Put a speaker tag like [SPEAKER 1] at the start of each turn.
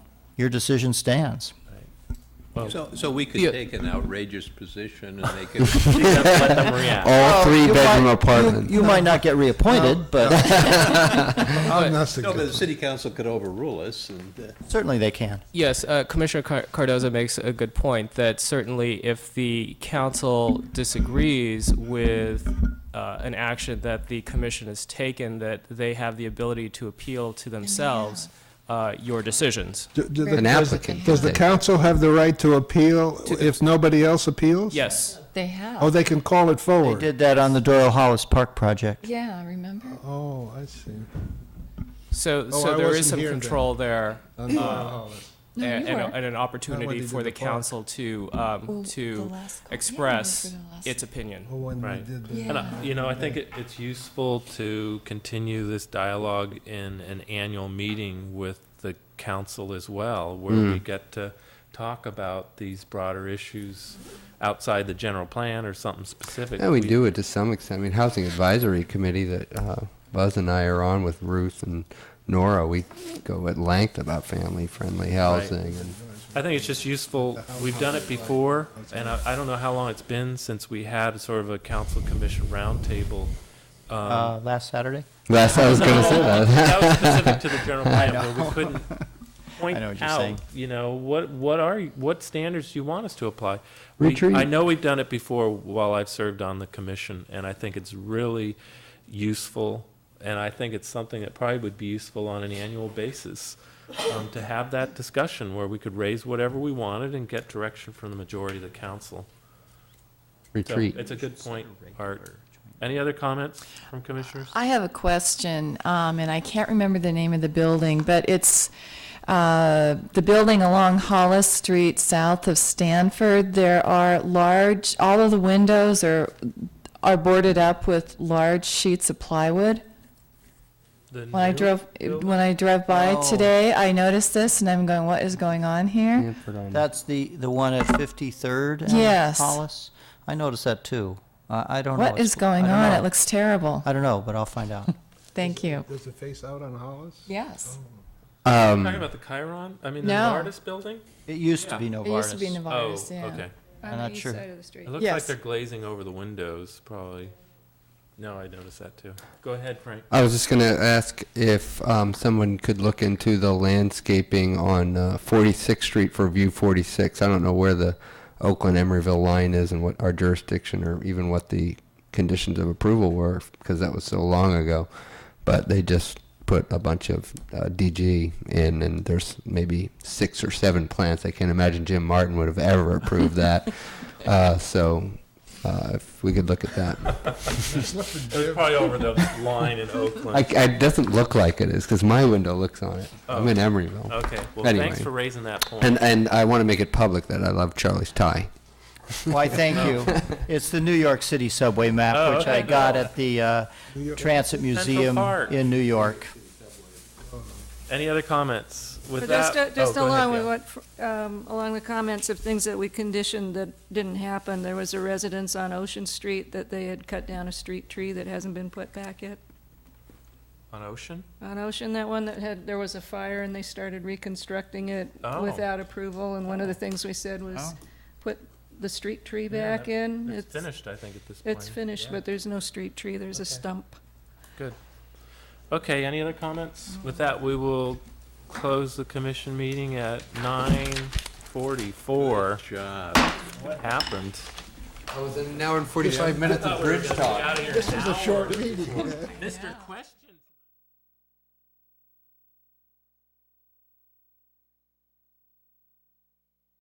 [SPEAKER 1] your decision stands.
[SPEAKER 2] Oh.
[SPEAKER 3] So, so we could
[SPEAKER 2] Yeah.
[SPEAKER 3] take an outrageous position and they could,
[SPEAKER 2] Let them
[SPEAKER 4] uh,
[SPEAKER 2] react.
[SPEAKER 5] All three
[SPEAKER 1] You
[SPEAKER 5] bedroom
[SPEAKER 1] might-
[SPEAKER 5] apartment.
[SPEAKER 1] You you might not get reappointed, but
[SPEAKER 3] no, but
[SPEAKER 4] I'm not
[SPEAKER 3] the
[SPEAKER 4] suggesting.
[SPEAKER 3] city council could overrule us and, uh,
[SPEAKER 1] certainly they can.
[SPEAKER 2] Yes, uh, Commissioner Car- Cardoza makes a good point that certainly if the council disagrees with uh, an action that the commission has taken, that they have the ability to appeal to themselves uh, your decisions.
[SPEAKER 4] Do- do the-
[SPEAKER 5] An
[SPEAKER 4] does-
[SPEAKER 5] applicant.
[SPEAKER 4] Does the council have the right to appeal if nobody else appeals?
[SPEAKER 2] Yes.
[SPEAKER 6] They have.
[SPEAKER 4] Oh, they can call it
[SPEAKER 1] They
[SPEAKER 4] forward?
[SPEAKER 1] did that on the Doyle Hollis Park project.
[SPEAKER 6] Yeah, I remember.
[SPEAKER 4] Oh, I see.
[SPEAKER 2] So,
[SPEAKER 4] Oh,
[SPEAKER 2] so
[SPEAKER 4] I
[SPEAKER 2] there
[SPEAKER 4] wasn't
[SPEAKER 2] is some
[SPEAKER 4] here then.
[SPEAKER 2] control there. uh,
[SPEAKER 6] No,
[SPEAKER 2] and,
[SPEAKER 6] you
[SPEAKER 2] and, a-
[SPEAKER 6] were.
[SPEAKER 2] and an
[SPEAKER 4] That
[SPEAKER 2] opportunity
[SPEAKER 4] one we
[SPEAKER 2] for
[SPEAKER 4] did
[SPEAKER 2] the
[SPEAKER 4] before.
[SPEAKER 2] council to
[SPEAKER 6] Well,
[SPEAKER 2] um,
[SPEAKER 6] the
[SPEAKER 2] to
[SPEAKER 6] last call. Yeah,
[SPEAKER 2] express
[SPEAKER 6] we were for the last
[SPEAKER 2] its
[SPEAKER 6] call.
[SPEAKER 2] opinion.
[SPEAKER 4] Oh, when we
[SPEAKER 7] Right.
[SPEAKER 4] did that.
[SPEAKER 7] And, uh,
[SPEAKER 6] Yeah.
[SPEAKER 7] you know, I think it, it's useful to continue this dialogue in an annual meeting with the council as well, where we
[SPEAKER 5] Hmm.
[SPEAKER 7] get to talk about these broader issues outside the general plan or something specific.
[SPEAKER 5] Yeah, we do it to some extent. I mean, Housing Advisory Committee that uh, Buzz and I are on with Ruth and Nora, we go at length about family-friendly housing and
[SPEAKER 7] I think it's just useful, we've done it before, and I, I don't know how long it's been since we had sort of a council commission roundtable. Um,
[SPEAKER 1] Uh, last Saturday?
[SPEAKER 5] That's I was going to say
[SPEAKER 1] Uh,
[SPEAKER 5] that.
[SPEAKER 7] That was specific to the general plan where we couldn't point
[SPEAKER 1] I know what you're saying.
[SPEAKER 7] out, you know, what, what are, you- what standards do you want us to apply? We-
[SPEAKER 5] Retreat.
[SPEAKER 7] I know we've done it before while I've served on the commission, and I think it's really useful. And I think it's something that probably would be useful on an annual basis, um, to have that discussion where we could raise whatever we wanted and get direction from the majority of the council. So
[SPEAKER 5] Retreat.
[SPEAKER 7] it's a good point, Art. Any other comments from commissioners?
[SPEAKER 6] I have a question, um, and I can't remember the name of the building, but it's uh, the building along Hollis Street, south of Stanford. There are large, all of the windows are, are boarded up with large sheets of plywood.
[SPEAKER 7] The
[SPEAKER 6] When I
[SPEAKER 7] new
[SPEAKER 6] drove,
[SPEAKER 7] building?
[SPEAKER 6] when I drove by
[SPEAKER 1] Oh.
[SPEAKER 6] today, I noticed this, and I'm going, what is going on here?
[SPEAKER 5] Stanford on-
[SPEAKER 1] That's the, the one at 53rd and
[SPEAKER 6] Yes.
[SPEAKER 1] Hollis? I noticed that too. I, I don't know.
[SPEAKER 6] What
[SPEAKER 1] what's
[SPEAKER 6] is going
[SPEAKER 1] I don't
[SPEAKER 6] on?
[SPEAKER 1] know.
[SPEAKER 6] It looks terrible.
[SPEAKER 1] I don't know, but I'll find out.
[SPEAKER 6] Thank you.
[SPEAKER 4] Does it face out on Hollis?
[SPEAKER 6] Yes.
[SPEAKER 5] Um,
[SPEAKER 7] Talking about the Chiron? I mean, the
[SPEAKER 6] No.
[SPEAKER 7] Novartis building?
[SPEAKER 1] It used to be
[SPEAKER 6] It used to be
[SPEAKER 1] Novartis.
[SPEAKER 6] Novartis,
[SPEAKER 7] oh,
[SPEAKER 6] yeah.
[SPEAKER 7] okay.
[SPEAKER 1] I'm not sure.
[SPEAKER 7] It looks like
[SPEAKER 6] Yes.
[SPEAKER 7] they're glazing over the windows, probably. No, I noticed that too. Go ahead, Frank.
[SPEAKER 5] I was just going to ask if um, someone could look into the landscaping on uh, 46th Street for View 46. I don't know where the Oakland Emeryville line is and what our jurisdiction or even what the conditions of approval were because that was so long ago. But they just put a bunch of uh, DG in, and there's maybe six or seven plants. I can't imagine Jim Martin would have ever approved that. Uh, so uh, if we could look at that.
[SPEAKER 7] It was probably over the line in
[SPEAKER 5] I,
[SPEAKER 7] Oakland.
[SPEAKER 5] it doesn't look like it is because my window looks on it. I'm in Emeryville,
[SPEAKER 7] Okay. Well,
[SPEAKER 5] Anyway.
[SPEAKER 7] thanks for raising that point.
[SPEAKER 5] and and I want to make it public that I love Charlie's tie.
[SPEAKER 1] Why, thank you. It's the New York City subway
[SPEAKER 7] Oh,
[SPEAKER 1] map, which I
[SPEAKER 7] okay.
[SPEAKER 1] got at the uh, Transit Museum
[SPEAKER 7] Park.
[SPEAKER 1] in New York.
[SPEAKER 7] Any other comments with
[SPEAKER 8] But
[SPEAKER 7] that?
[SPEAKER 8] just, uh, just
[SPEAKER 7] oh, go ahead,
[SPEAKER 8] along with
[SPEAKER 7] yeah.
[SPEAKER 8] what, um, along the comments of things that we conditioned that didn't happen, there was a residence on Ocean Street that they had cut down a street tree that hasn't been put back yet.
[SPEAKER 7] On Ocean?
[SPEAKER 8] On Ocean, that one that had, there was a fire and they started reconstructing it
[SPEAKER 7] Oh.
[SPEAKER 8] without approval, and one of the things we said was,
[SPEAKER 1] Oh.
[SPEAKER 8] put the street tree
[SPEAKER 7] Yeah,
[SPEAKER 8] back
[SPEAKER 7] that-
[SPEAKER 8] in.
[SPEAKER 7] It's finished, I think, at this point.
[SPEAKER 8] It's finished, but there's no street tree, there's a
[SPEAKER 7] Okay.
[SPEAKER 8] stump.
[SPEAKER 7] Okay, any other comments? With that, we will close the commission meeting at 9:44.
[SPEAKER 3] job.
[SPEAKER 7] What happened?
[SPEAKER 5] I was in an hour and forty-five minutes of bridge talk.
[SPEAKER 7] This is a short meeting. Mr. Question.